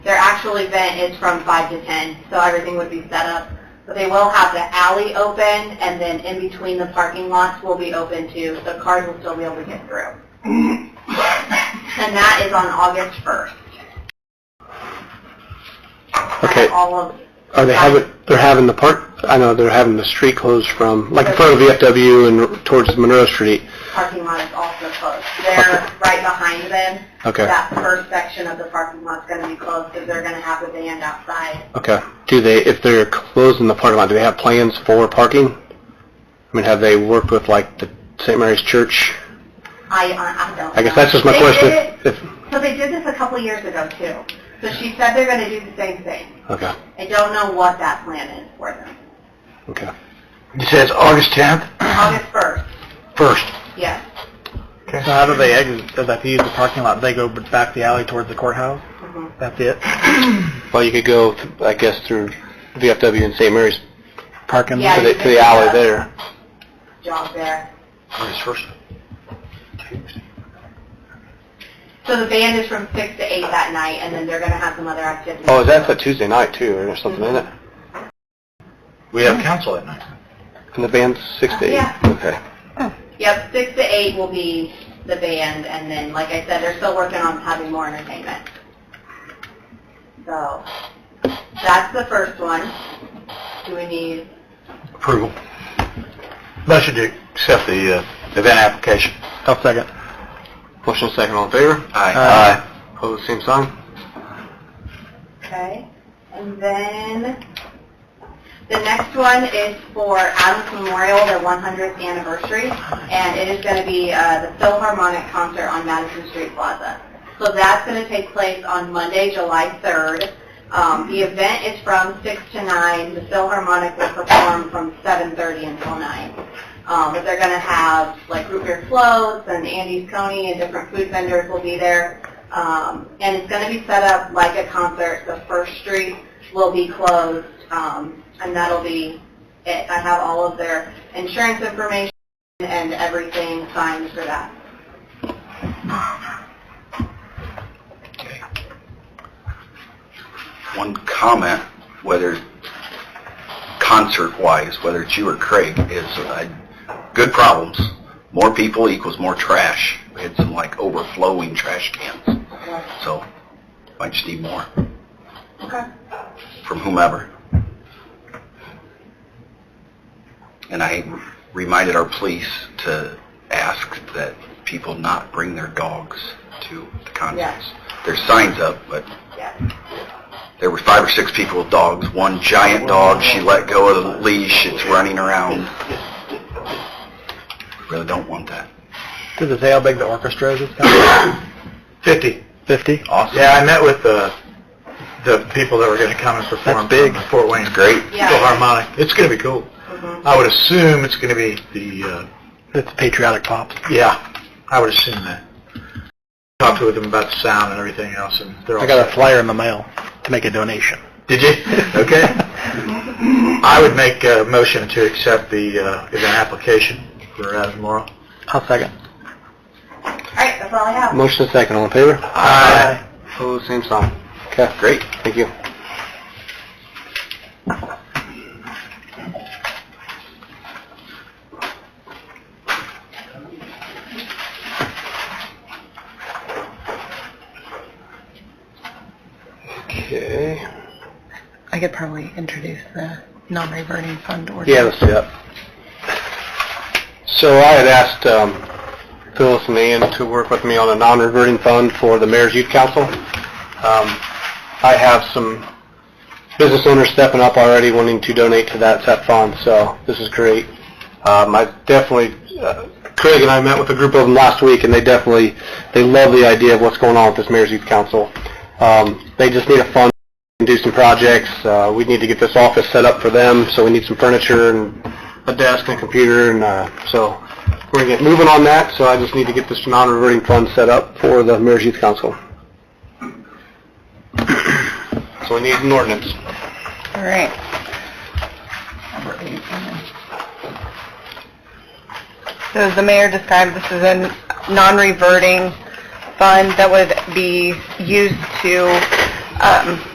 actual event is from 5 to 10, so everything would be set up. But they will have the alley open, and then in between the parking lots will be open too, so cars will still be able to get through. And that is on August 1st. Okay. And all of, Are they having, they're having the park, I know they're having the street closed from, like in front of VFW and towards Monroe Street. parking lot is also closed. They're right behind them. Okay, That first section of the parking lot's going to be closed because they're going to have the band outside. okay. Do they, if they're closing the parking lot, do they have plans for parking? I mean, have they worked with like the St. Mary's Church? I, I I don't I guess know. that's just my They question. did it- If- So they did this a couple of years ago too. So she said they're going to do the same thing. Okay, I don't know what that plan is for them. okay. It says August 10th, August 1st, first. yes. Okay. So how do they exit? If they use the parking lot, they go back the alley towards the courthouse? Mhm. That's it? Well, you could go, I guess, through VFW and St. Mary's Parking? Yeah. to the, to the alley there. Job there. August 1st. So the band is from 6 to 8 that night and then they're going to have some other activities. Oh, that's a Tuesday night too, or something, isn't it? We have council at night. And the band's six to eight? Yeah. Okay. Yep, 6 to 8 will be the band and then, like I said, they're still working on having more entertainment. So that's the first one. Do we need, Approval. Motion to accept the uh, event application. I'll second. Motion second, all in favor? Aye. Pose same sign? okay? And then the next one is for Adams Memorial, their 100th anniversary, and it is going to be uh, the Philharmonic concert on Madison Street Plaza. So that's going to take place on Monday, July 3rd. Um, the event is from 6 to 9. The Philharmonic will perform from 7.30 until 9. Um, but they're going to have like root beer floats and Andy's Coney and different food vendors will be there. Um, and it's going to be set up like a concert. The First Street will be closed um, and that'll be it. I have all of their insurance information and everything signed for that. one comment, whether concert-wise, whether it's you or Craig, is uh, good problems. More people equals more trash. We had some like overflowing trash cans, so might just need more Okay. from whomever. And I reminded our police to ask that people not bring their dogs to the concerts. There's signs up, but Yeah. there were five or six people with dogs. One giant dog, she let go of the leash, it's running around. Really don't want that. Does it say how big the orchestra is this time? 50. Fifty? Awesome. Yeah, I met with the, the people that were going to come and perform. That's big. from Fort Wayne. It's great. Yeah. Philharmonic. It's going to be cool. Mhm. I would assume it's going to be the, uh, It's patriotic pop. yeah, I would assume that. Talked with them about the sound and everything else, and they're all... I got a flyer in the mail to make a donation. Did you? Okay. I would make a motion to accept the uh, event application for Adams Memorial. I'll second. All right, that's all I have. Motion second, all in favor? Aye. Pose same sign. Okay. Great. Thank you. Okay. I could probably introduce the non-reverting fund ordinance. Yeah, let's do that. So I had asked um, Phyllis and Ann to work with me on a non-reverting fund for the Mayor's Youth Council. Um, I have some business owners stepping up already wanting to donate to that, that fund, so this is great. Um, I definitely, uh, Craig and I met with a group of them last week, and they definitely, they love the idea of what's going on with this Mayor's Youth Council. Um, They just need a fund and do some projects. Uh, we need to get this office set up for them, so we need some furniture and a desk and a computer, and, uh, so we're gonna get moving on that, so I just need to get this non-reverting fund set up for the Mayor's Youth Council. So we need an ordinance. All right. Number eight, and then- So as the mayor described, this is a non-reverting fund that would be used to um,